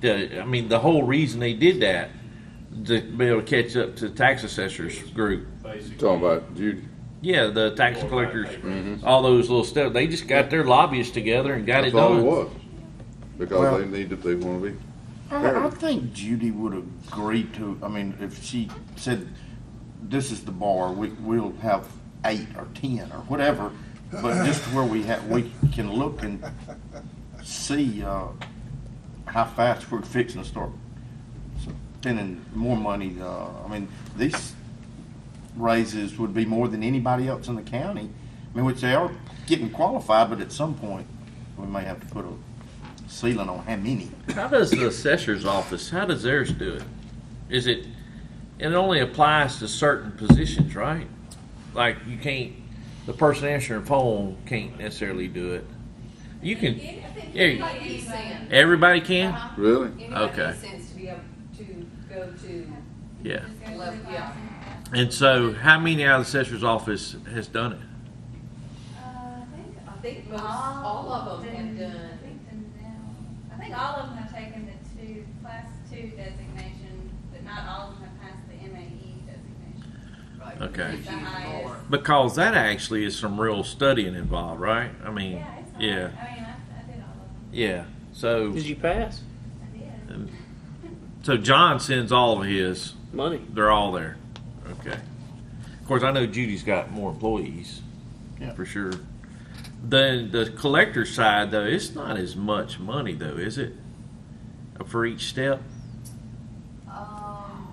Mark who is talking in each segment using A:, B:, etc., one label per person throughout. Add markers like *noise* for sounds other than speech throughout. A: the, I mean, the whole reason they did that, to be able to catch up to the tax assessors group.
B: basically.
C: Talking about Judy.
A: Yeah, the tax
B: Or
A: collectors,
B: like papers.
A: all those little stuff. They just got their lobbyists together and got it
C: That's all it
A: done.
C: was. Because
D: Well-
C: they need to, they wanna be,
D: Uh, I, I think Judy would agree to, I mean, if she said, this is the bar, we, we'll have eight or ten or whatever, but just where we have, we can look and see, uh, how fast we're fixing to start spending more money, uh, I mean, these raises would be more than anybody else in the county. I mean, which they are getting qualified, but at some point, we may have to put a ceiling on how many.
A: How does the assessor's office, how does theirs do it? Is it, it only applies to certain positions, right? Like you can't, the person answering the phone can't necessarily do it. You can, yeah, you-
E: Anybody gets sent.
A: everybody can?
E: Uh-huh.
C: really?
E: Anybody
A: Okay.
E: gets sent to be able to go to
A: Yeah.
E: level, yeah.
A: And so how many out of the assessor's office has done it?
E: I think most,
F: Oh,
E: all of them have
F: I
E: done.
F: think the now, I think all of them have taken the two, class two designation, but not all of them have passed the MAE designation.
A: Okay.
E: It's the highest.
A: Because that actually is some real studying involved, right? I mean,
F: Yeah, it's, all- I
A: yeah,
F: mean, I, I did all of them,
A: yeah. So,
G: Did you pass?
F: I did.
A: so John sends all of his.
G: Money.
A: They're all there. Okay. Of course, I know Judy's got more employees,
D: Yeah.
A: for sure. The the collector side though, it's not as much money though, is it? For each step.
E: Um,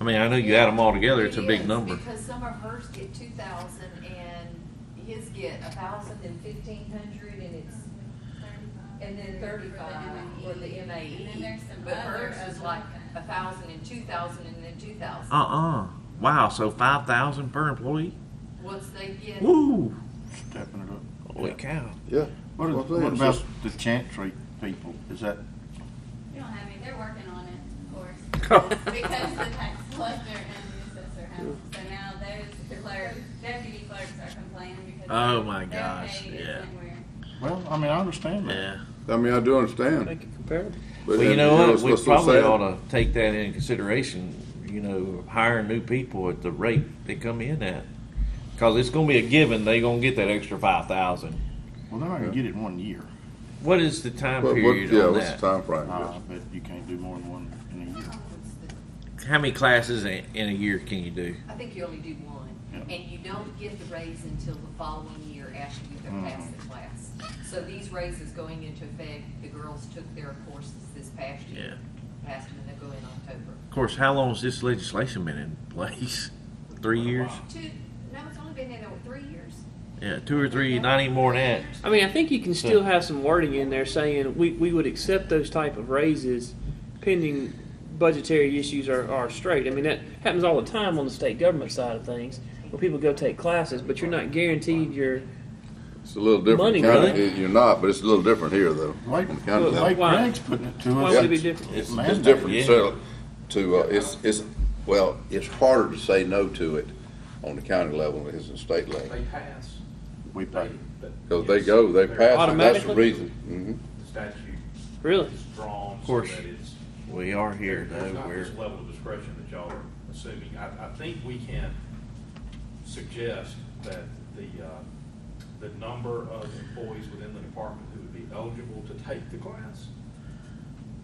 A: I mean, I know you add them all together, it's a
E: It
A: big
E: is,
A: number.
E: Because some of hers get two thousand and his get a thousand and fifteen hundred and it's,
F: Thirty-five.
E: and then thirty-five for the
F: And then
E: MAE.
F: there's some
E: But
F: other
E: hers is
F: other
E: like
F: things.
E: a thousand and two thousand and then two
A: Uh
E: thousand.
A: uh Wow. So five thousand per employee.
E: Once they get,
A: Woo.
D: Stepping it up.
A: Holy cow.
C: Yeah.
D: What,
C: Well,
D: is,
C: I think
D: what
C: it's
D: about
C: just-
D: the Chantry people? Is that
F: You don't have any, they're working on it, of course, *laughs* because the tax collector and the assessor have, them. so now those clerk, deputy clerks are complaining because.
A: Oh, my
F: their
A: gosh,
F: pay
A: yeah.
F: isn't where-
D: well? I mean, I understand that.
A: Yeah.
C: I mean, I do understand.
G: Make it comparable.
C: but
A: Well, you
C: then,
A: know
C: it's-
A: what? We
C: it's so
A: probably
C: sad.
A: ought to take that into consideration. You know, hiring new people at the rate they come in at, because it's going to be a given. They're going to get that extra five thousand.
D: Well, they're not gonna get it in one year,
A: What is the time
C: What, what,
A: period
C: yeah,
A: on
C: what's
A: that?
C: the timeframe?
D: uh,
C: Yes.
D: but you can't do more than one in a
E: oh,
D: year.
A: How many classes in, in a year can you do?
E: I think you only do one,
D: Yeah.
E: and you don't get the raise until the following year after you've passed
A: Mm-hmm.
E: the class. So these raises going into effect, the girls took their courses this past year. Passed them, and they'll go in October.
A: Of course, how long has this legislation been in place? Three years?
E: Two, no, it's only been there what, three years.
A: Yeah, two or three, not any more than
G: I mean, I think you can still have some wording in there saying we, we would accept those type of raises pending budgetary issues are, are straight. I mean, that happens all the time on the state government side of things where people go take classes, but you're not guaranteed your.
C: It's a little different.
G: Money,
C: County-
G: really?
C: it- You're not, but it's a little different here though.
D: Lake,
C: on the county level.
D: Lake
G: Why?
D: Greg's putting it to
G: Why
D: us.
G: would it be different?
D: It's
C: It's
D: mandated.
C: different,
A: yeah.
C: so, to, uh, it's, it's, well, it's harder to say no to it on the county level than it is in state level.
B: They pass.
D: We pay.
C: Cause Oh, they go, they pass, and that's the
G: Automatically?
C: reason. Mhm.
B: The statute
G: Really?
B: is drawn so
A: course.
B: that it's.
A: that. We are here
B: There's
A: though.
B: not
A: We're
B: this level of discretion that y'all are assuming. I, I think we can suggest that the, uh, the number of employees within the department who would be eligible to take the class,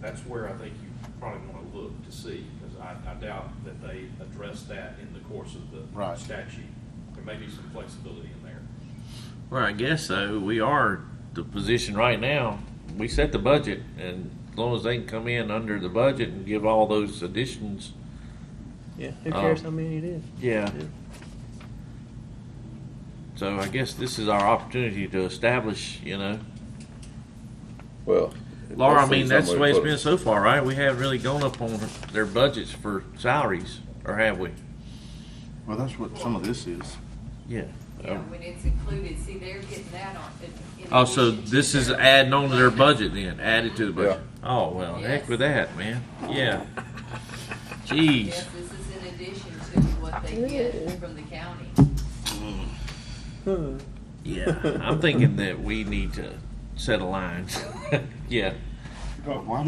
B: that's where I think you probably want to look to see, because I, I doubt that they address that in the course of the
D: Right.
B: statute. There may be some flexibility in there.
A: Well, I guess so. We are the position right now. We set the budget, and as long as they can come in under the budget and give all those additions,
G: Yeah. Who
A: Oh.
G: cares how many it is?
A: yeah. So I guess this is our opportunity to establish, you know,
C: Well. it
A: Laura. I
C: must be
A: mean, that's the
C: somebody
A: way it's
C: put it.
A: been so far, right? We haven't really gone up on their budgets for salaries, or have we?
D: Well, that's what some of this is.
A: Yeah.
E: You know, when it's included, see, they're getting that on. in- in
A: Oh, so
E: addition to
A: this is
E: their-
A: adding on to their budget then, added to the budget? Oh, well, heck with that, man. Yeah. Jeez.
E: Yes, this is in addition to what they get from the county.
G: Hmm.
A: Yeah, I'm thinking that we need to set a line. *laughs* yeah.
D: But why